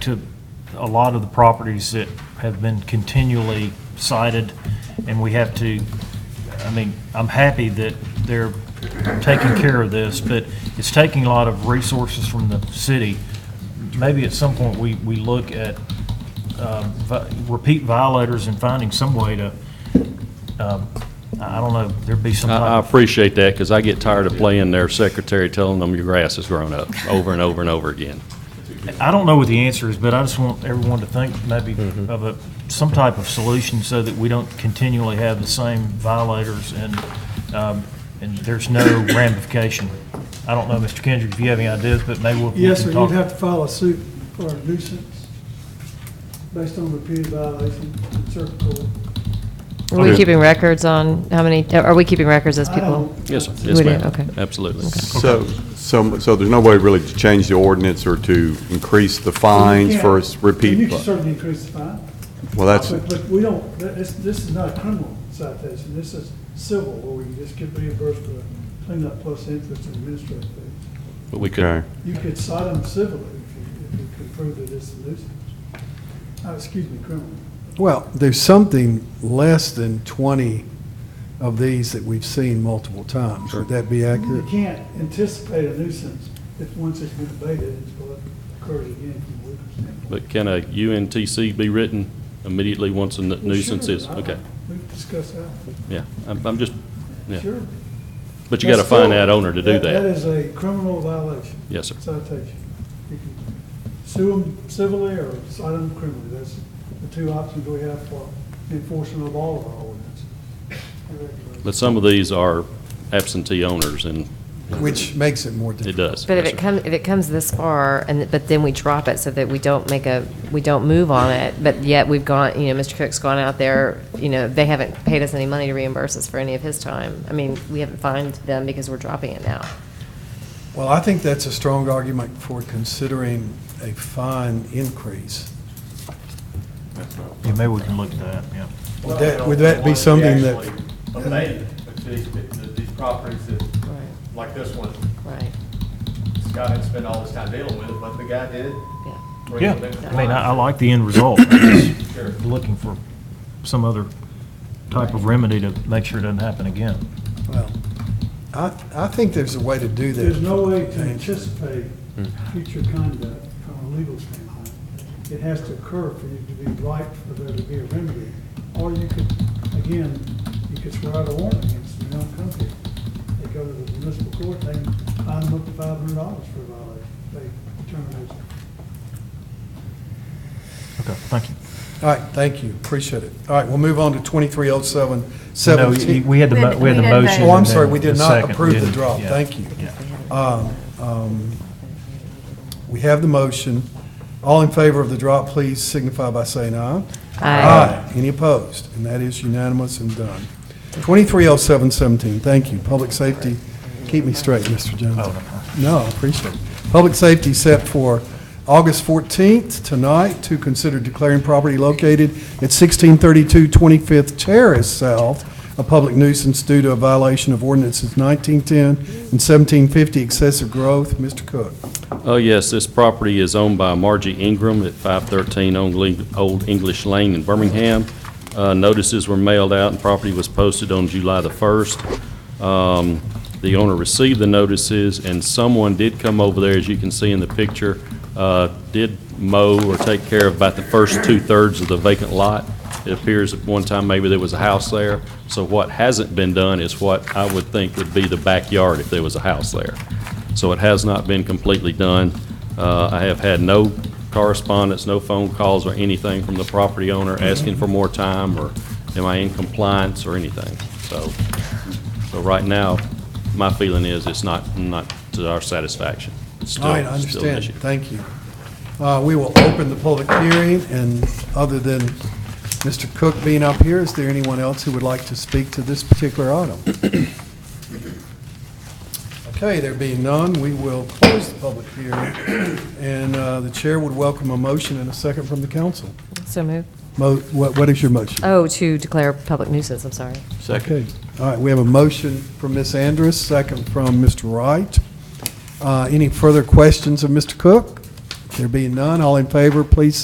to a lot of the properties that have been continually cited, and we have to, I mean, I'm happy that they're taking care of this, but it's taking a lot of resources from the city. Maybe at some point, we, we look at um, vi- repeat violators and finding some way to, um, I I don't know, there'd be some type I I of appreciate that, because I get tired of playing their secretary telling them your grass has grown up over and over and over again. I don't know what the answer is, but I just want everyone to think maybe Mm-hmm. of a, some type of solution so that we don't continually have the same violators and, um, and there's no ramification. I don't know, Mr. Kendrick, if you have any ideas, but maybe we'll. we Yes, can sir, talk. you'd have to file a suit for a nuisance based on repeated violation in circuit court. Are we Okay. keeping records on how many, are we keeping records as I people? don't- Yes, sir. We Yes, do, ma'am. okay. Absolutely. So, so, so there's no way really to change the ordinance or to increase the fines Yeah. for s- You repeat? can vi- certainly increase the fine. Well, that's, But, but we don't, th- this, this is not a criminal citation, this is civil, where we just get reimbursed for cleanup plus interest and administrative fees. But we could, okay. You could cite them civilly if you, if you could prove that it's a nuisance. Uh, excuse me, criminal. Well, there's something less than 20 of these that we've seen multiple times. Would that be You accurate? can't anticipate a nuisance if once it's been abated, it's what occurs again from a legal standpoint. but can a UNTC be written immediately once a nu- Well, nuisance sure, is? I- Okay, We've discussed that, yeah. I'm, I'm just, yeah. sure. But you got to That's still- find that owner to do That that. is a criminal violation, Yes, sir. citation. You can sue them civilly or cite them criminally, that's the two options we have for enforcement of all of our ordinance. But some of these are absentee owners, and Which makes it more it difficult. does. But if Yes, it sir. comes, if it comes this far, and, th- but then we drop it so that we don't make a, we don't move on it, but yet we've gone, you know, Mr. Cook's gone out there, you know, they haven't paid us any money to reimburse us for any of his time. I mean, we haven't fined them because we're dropping it now. Well, I think that's a strong argument for considering a fine increase. Yeah, maybe we can look at that, yeah. Would that, would that be something that, Well, they actually abate these, the- these properties that, Right, like this one, right, Scott had spent all this time dealing with it, but the guy did. yeah. bring Yeah, it in I mean, I, I like the end result. I'm Sure. just Looking for some other type of remedy to make sure it doesn't happen again. well, I, I think there's a way to do that. There's no way to anticipate future conduct from a legal standpoint. It has to occur for you to be right, for there to be a remedy. Or you could, again, you could swear out a warrant against them, they don't come here. They go to the municipal court, they fine them up to five hundred dollars for a violation, they determine it's Okay, thank you. All right, thank you, appreciate it. All right, we'll move on to 2307, No, you- 17. we had the, mo- we had the We didn't vote. motion. Oh, I'm and then sorry, we did the not second. approve the Didn't- drop, yeah. thank you. Yeah. Um, um, We have the motion. All in favor of the drop, please signify by saying aye. Any opposed? And that is unanimous and done. 230717, thank you. Public safety, keep me straight, Mr. Jones. No, I appreciate it. Public safety set for August 14th, tonight, to consider declaring property located at 1632 25th Terrace South a public nuisance due to a violation of ordinances 1910 and 1750 excessive growth. Mr. Cook. Oh, yes, this property is owned by Margie Ingram at 513 Ongli- Old English Lane in Birmingham. Uh, Notices were mailed out and property was posted on July the 1st. Um, The owner received the notices, and someone did come over there, as you can see in the picture, uh, did mow or take care of about the first two-thirds of the vacant lot. It appears at one time maybe there was a house there. So what hasn't been done is what I would think would be the backyard if there was a house there. So it has not been completely done. Uh, I have had no correspondence, no phone calls or anything from the property owner asking for more time or am I in compliance or anything. So, so right now, my feeling is it's not, not to our satisfaction. It's still- All right, I still an understand. issue. Thank you. Uh, We will open the public hearing, and other than Mr. Cook being up here, is there anyone else who would like to speak to this particular item? Okay, there being none, we will close the public hearing, and uh, the chair would welcome a motion and a second from the council. So moved. Mo- What what is your motion? Oh, to declare public nuisance, I'm sorry. Second. All right, we have a motion from Ms. Andrus, second from Mr. Wright. Uh, Any further questions of Mr. Cook? There being none, all in favor, please